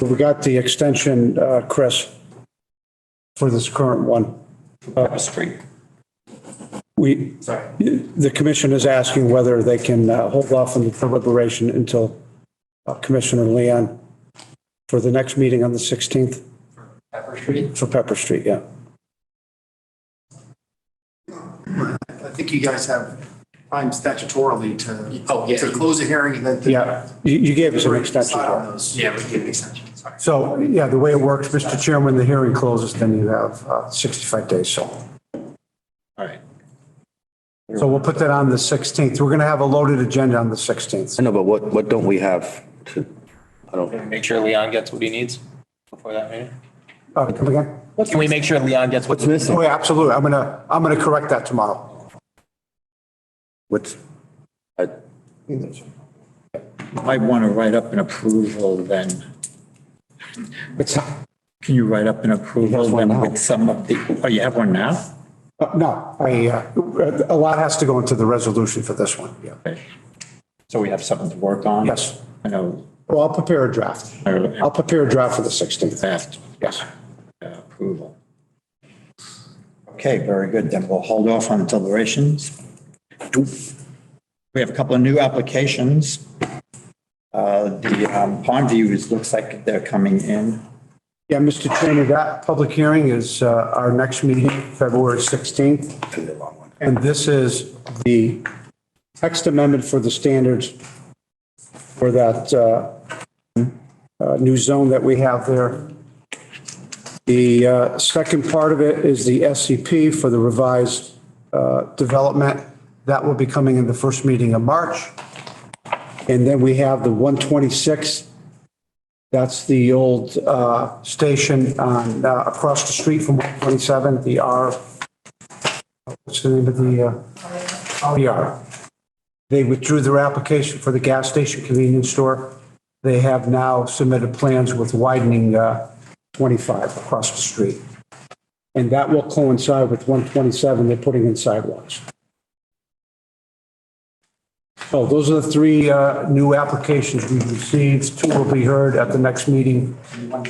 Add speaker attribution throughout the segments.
Speaker 1: We got the extension, uh, Chris, for this current one.
Speaker 2: Pepper Street.
Speaker 1: We,
Speaker 2: Sorry.
Speaker 1: the commission is asking whether they can uh, hold off on the deliberation until uh, Commissioner Leon for the next meeting on the 16th
Speaker 2: Pepper Street.
Speaker 1: for Pepper Street, yeah.
Speaker 3: I think you guys have time statutorily to.
Speaker 2: Oh, yeah.
Speaker 3: To close the hearing and then. to-
Speaker 1: Yeah, you, you gave us an extension.
Speaker 3: Decide on those.
Speaker 2: Yeah, we did an extension, sorry.
Speaker 1: So, yeah, the way it works, Mr. Chair, when the hearing closes, then you have uh, 65 days, so.
Speaker 2: All right.
Speaker 1: So we'll put that on the 16th. We're going to have a loaded agenda on the 16th.
Speaker 4: I know, but what, what don't we have to, I don't,
Speaker 2: Make sure Leon gets what he needs before that meeting.
Speaker 1: Uh, Come again?
Speaker 2: Can we make sure Leon gets what?
Speaker 4: what's missing?
Speaker 1: Oh, yeah, absolutely. I'm going to, I'm going to correct that tomorrow.
Speaker 4: What's, uh, I,
Speaker 5: Might want to write up an approval then. What's, can you write up an approval then with some of the, oh, you have one now?
Speaker 1: Uh, No, I, uh, a lot has to go into the resolution for this one, yeah.
Speaker 5: Okay. So we have something to work on?
Speaker 1: Yes.
Speaker 5: I know,
Speaker 1: Well, I'll prepare a draft. I'll
Speaker 5: I
Speaker 1: prepare a draft for the 16th.
Speaker 5: asked uh,
Speaker 1: Yes.
Speaker 5: approval. Okay, very good. Then we'll hold off on deliberations. We have a couple of new applications. Uh, The um, Pond View is, looks like they're coming in.
Speaker 1: Yeah, Mr. Chairman, that public hearing is uh, our next meeting, February 16th. And this is the text amendment for the standards for that uh, uh, new zone that we have there. The uh, second part of it is the SCP for the revised uh, development. That will be coming in the first meeting of March. And then we have the 126 that's the old uh, station on, uh, across the street from 127, the R, what's the name of the, uh, RER. They withdrew their application for the gas station convenience store. They have now submitted plans with widening uh, 25 across the street. And that will coincide with 127, they're putting in sidewalks. So those are the three uh, new applications we've received. Two will be heard at the next meeting.
Speaker 5: All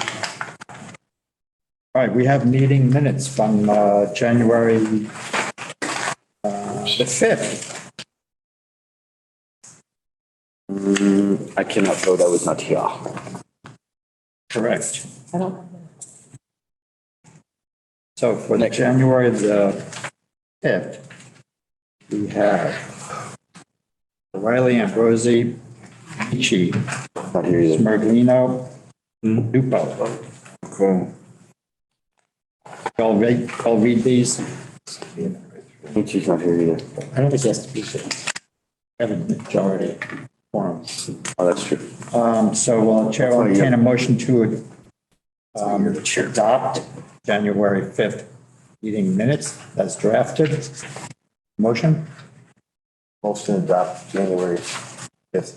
Speaker 5: right, we have meeting minutes from uh, January uh, the 5th.
Speaker 4: Mm, I cannot vote, I was not here.
Speaker 5: Correct. So for the January the 5th, we have Riley Ambrosi, Michi,
Speaker 4: Not here either.
Speaker 5: Smirglino, Lupo. Hmm? Cool. I'll read, I'll read these.
Speaker 4: She's not here either.
Speaker 5: I don't think it has to be there. Have a majority forums.
Speaker 4: Oh, that's true.
Speaker 5: Um, so, well, Chair will entertain a motion to um, adopt January 5th meeting minutes as drafted. Motion,
Speaker 4: Motion to adopt January 5th.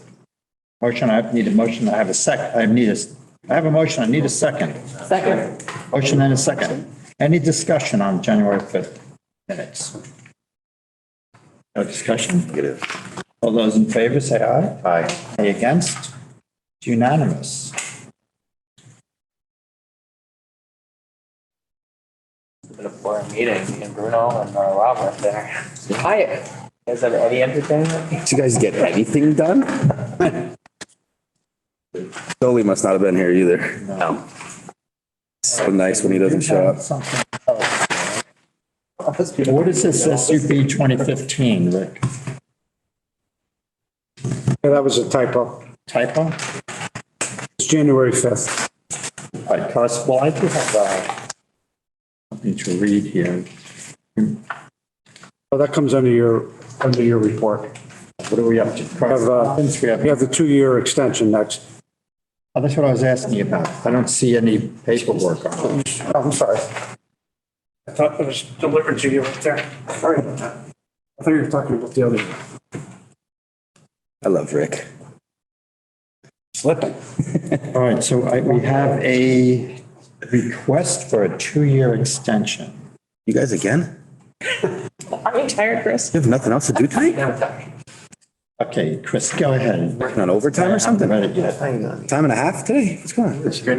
Speaker 5: motion, I need a motion, I have a sec, I need a, s- I have a motion, I need a second.
Speaker 6: Second.
Speaker 5: Motion and a second. Any discussion on January 5th minutes? No discussion?
Speaker 4: Negative.
Speaker 5: All those in favor, say aye.
Speaker 4: Aye.
Speaker 5: Any against? It's unanimous.
Speaker 2: Been a boring meeting, me and Bruno and uh, Rob were there. Hi. Is there any entertainment?
Speaker 4: Did you guys get anything done? Dolly must not have been here either. No. So nice when he doesn't show up.
Speaker 5: Something else. What is this SUP 2015, Rick?
Speaker 1: Yeah, that was a typo.
Speaker 5: Typo?
Speaker 1: It's January 5th.
Speaker 5: All right, Carson, well, I do have uh, something to read here.
Speaker 1: Well, that comes under your, under your report.
Speaker 5: What are we up
Speaker 1: We
Speaker 5: to?
Speaker 1: have, uh,
Speaker 5: Correspondence, we
Speaker 1: we have
Speaker 5: have,
Speaker 1: the two-year extension next.
Speaker 5: Oh, that's what I was asking you about. I don't see any paperwork on it.
Speaker 1: Oh, I'm sorry. I thought it was delivered to you right there. Sorry about that. I thought you were talking about the other.
Speaker 4: I love Rick.
Speaker 1: Slipping.
Speaker 5: All right, so I, we have a request for a two-year extension.
Speaker 4: You guys again?
Speaker 6: Are you tired, Chris?
Speaker 4: You have nothing else to do tonight?
Speaker 5: Okay, Chris, go ahead.
Speaker 4: Working on overtime or something?
Speaker 5: I haven't read it yet.
Speaker 4: Time and a half today? What's going on?